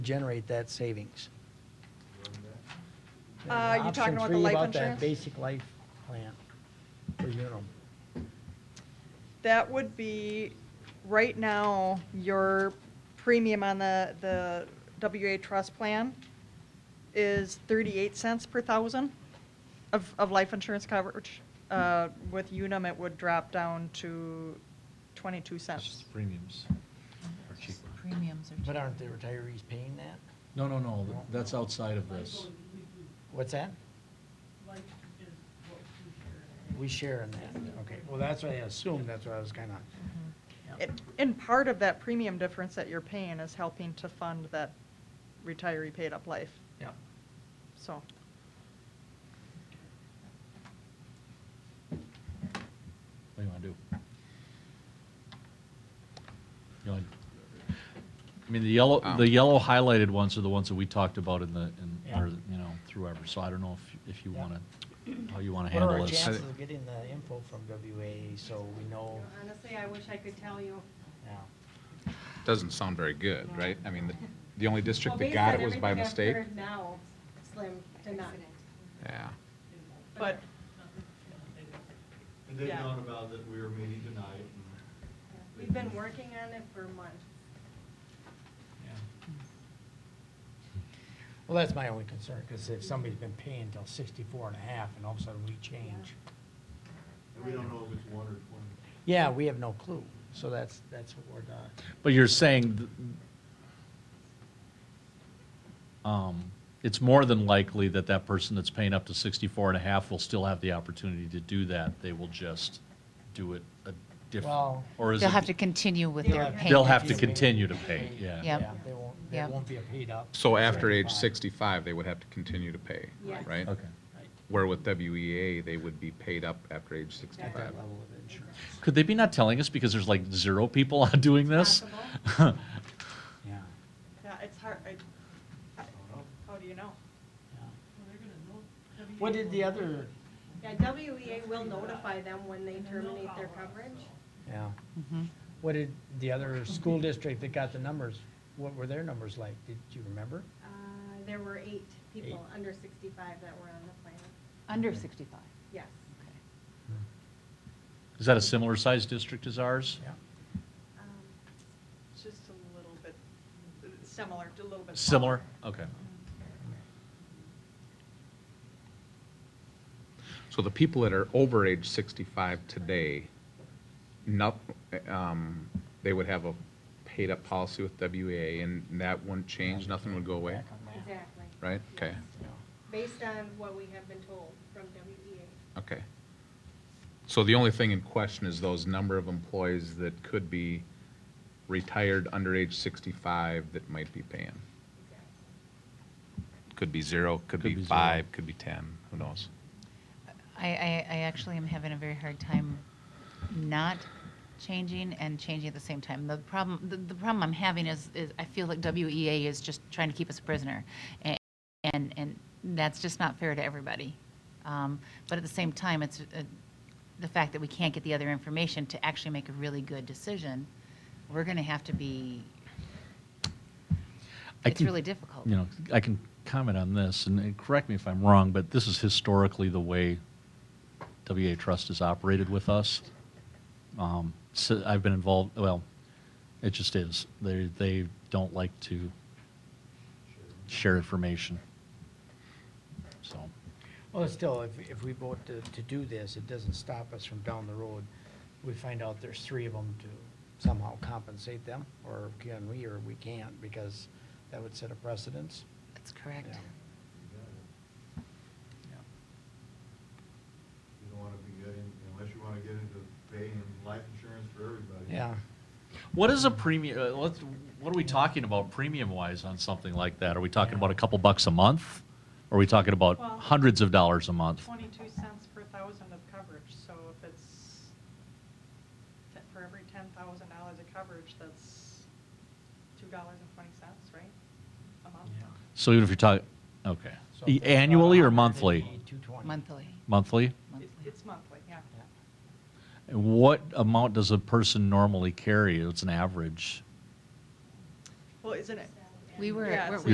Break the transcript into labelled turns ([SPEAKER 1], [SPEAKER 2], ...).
[SPEAKER 1] generate that savings.
[SPEAKER 2] Uh, you
[SPEAKER 1] Option
[SPEAKER 2] talking about the
[SPEAKER 1] three,
[SPEAKER 2] life
[SPEAKER 1] about that
[SPEAKER 2] insurance?
[SPEAKER 1] Basic life plan for Unum.
[SPEAKER 2] That would be, right now, your premium on the, the WA trust plan is thirty-eight cents per thousand of, of life insurance coverage. Uh, With Unum, it would drop down to twenty-two
[SPEAKER 3] It's
[SPEAKER 2] cents.
[SPEAKER 3] just Premiums are cheaper.
[SPEAKER 4] Premiums are cheaper.
[SPEAKER 1] But aren't the retirees paying that?
[SPEAKER 5] No, no, no, th- that's outside of this.
[SPEAKER 1] What's that? We share in that, okay. Well, that's what I assumed, that's what I was kinda,
[SPEAKER 2] It- And part of that premium difference that you're paying is helping to fund that retiree paid-up life,
[SPEAKER 1] yeah.
[SPEAKER 2] so.
[SPEAKER 5] What do you want to do? You want- I mean, the yellow,
[SPEAKER 6] Um,
[SPEAKER 5] the yellow highlighted ones are the ones that we talked about in the, in,
[SPEAKER 1] Yeah.
[SPEAKER 5] or, you know, through ever, so I don't know if, if you
[SPEAKER 1] Yeah.
[SPEAKER 5] want to, how you want to
[SPEAKER 1] What are
[SPEAKER 5] handle
[SPEAKER 1] our
[SPEAKER 5] this.
[SPEAKER 1] chances of getting the info from WA so we know
[SPEAKER 7] Honestly, I wish I could tell you.
[SPEAKER 1] now?
[SPEAKER 6] Doesn't sound very good, right? I mean, the- the only district
[SPEAKER 7] Well,
[SPEAKER 6] that
[SPEAKER 7] based
[SPEAKER 6] got
[SPEAKER 7] on
[SPEAKER 6] it was
[SPEAKER 7] everything
[SPEAKER 6] by
[SPEAKER 7] I've
[SPEAKER 6] mistake.
[SPEAKER 7] heard Now, slim to none.
[SPEAKER 6] Yeah.
[SPEAKER 2] But
[SPEAKER 8] And they
[SPEAKER 2] Yeah.
[SPEAKER 8] known about that we were meeting tonight.
[SPEAKER 7] We've been working on it for months.
[SPEAKER 1] Well, that's my only concern, because if somebody's been paying till 64 and a half, and all of a sudden we change.
[SPEAKER 8] And we don't know if it's one or twenty.
[SPEAKER 1] Yeah, we have no clue, so that's, that's what we're done.
[SPEAKER 5] But you're saying, th- um, it's more than likely that that person that's paying up to 64 and a half will still have the opportunity to do that. They will just do it a different,
[SPEAKER 1] Well-
[SPEAKER 5] or is it?
[SPEAKER 4] They'll have to continue with their
[SPEAKER 1] They'll
[SPEAKER 4] payments.
[SPEAKER 5] They'll have to continue to pay,
[SPEAKER 4] Yeah.
[SPEAKER 5] yeah.
[SPEAKER 1] They won't, they
[SPEAKER 4] Yeah.
[SPEAKER 1] won't be a paid up.
[SPEAKER 6] So after age
[SPEAKER 1] Right.
[SPEAKER 6] 65, they would have to continue to pay,
[SPEAKER 7] Yes.
[SPEAKER 6] right?
[SPEAKER 5] Okay.
[SPEAKER 6] Where with WEA, they would be paid up after age 65.
[SPEAKER 1] That level of insurance,
[SPEAKER 5] Could they be not telling us because there's like zero people doing this?
[SPEAKER 1] yeah.
[SPEAKER 2] Yeah, it's hard, I, I- how do you know?
[SPEAKER 1] yeah. What did the other,
[SPEAKER 7] Yeah, WEA will notify them when they terminate their coverage.
[SPEAKER 1] yeah, what did the other school district that got the numbers, what were their numbers like? Did you remember?
[SPEAKER 7] Uh, There were eight people
[SPEAKER 1] Eight.
[SPEAKER 7] under sixty-five that were on the plan.
[SPEAKER 4] Under 65.
[SPEAKER 7] Yes.
[SPEAKER 4] Okay.
[SPEAKER 5] Is that a similar sized district as ours?
[SPEAKER 1] Yeah.
[SPEAKER 7] Um,
[SPEAKER 2] It's just a little bit uh, similar, a little bit.
[SPEAKER 5] Similar? Okay.
[SPEAKER 6] So the people that are over age 65 today, not, um, they would have a paid up policy with WEA and that wouldn't change, nothing would go away,
[SPEAKER 1] Back on that.
[SPEAKER 7] Exactly.
[SPEAKER 6] right? Okay,
[SPEAKER 7] Based on what we have been told from E WEA.
[SPEAKER 6] okay. So the only thing in question is those number of employees that could be retired under age 65 that might be paying. Could be zero, could
[SPEAKER 5] Could
[SPEAKER 6] be
[SPEAKER 5] be zero.
[SPEAKER 6] five, could be 10, who knows?
[SPEAKER 4] I, I, I actually am having a very hard time not changing and changing at the same time. The problem, the, the problem I'm having is, is I feel like WEA is just trying to keep us prisoner. A- And, and that's just not fair to everybody. Um, But at the same time, it's uh, the fact that we can't get the other information to actually make a really good decision. We're going to have to be,
[SPEAKER 5] I
[SPEAKER 4] It's
[SPEAKER 5] can-
[SPEAKER 4] really difficult.
[SPEAKER 5] You know, I can comment on this, and- and correct me if I'm wrong, but this is historically the way WA Trust has operated with us. Um, So I've been involved, well, it just is. They, they don't like to share information. So,
[SPEAKER 1] Well, still, if, if we vote to, to do this, it doesn't stop us from down the road. We find out there's three of them to somehow compensate them, or can we, or we can't, because that would set a precedence.
[SPEAKER 4] that's correct.
[SPEAKER 1] Yeah.
[SPEAKER 8] You don't want to be getting, unless you want to get into paying life insurance for everybody.
[SPEAKER 1] Yeah,
[SPEAKER 5] what is a premium, uh, let's, what are we talking about premium-wise on something like that? Are we talking about a couple bucks a month? Are we talking about
[SPEAKER 2] Well-
[SPEAKER 5] hundreds of dollars a month?
[SPEAKER 2] Twenty-two cents per thousand of coverage, so if it's, te- for every ten thousand dollars of coverage, that's two dollars and twenty cents, right? A month?
[SPEAKER 1] yeah.
[SPEAKER 5] So even if you're talking, okay,
[SPEAKER 1] So
[SPEAKER 5] E-
[SPEAKER 1] if it's
[SPEAKER 5] annually or
[SPEAKER 1] 100, it'd
[SPEAKER 5] monthly?
[SPEAKER 1] be 220.
[SPEAKER 4] Monthly.
[SPEAKER 5] Monthly?
[SPEAKER 2] It-
[SPEAKER 4] monthly.
[SPEAKER 2] It's monthly, yeah.
[SPEAKER 1] Yeah.
[SPEAKER 5] And What amount does a person normally carry? It's an average.
[SPEAKER 2] Well, isn't it,
[SPEAKER 4] We were,
[SPEAKER 2] Yeah,
[SPEAKER 4] weren't
[SPEAKER 2] it's
[SPEAKER 4] we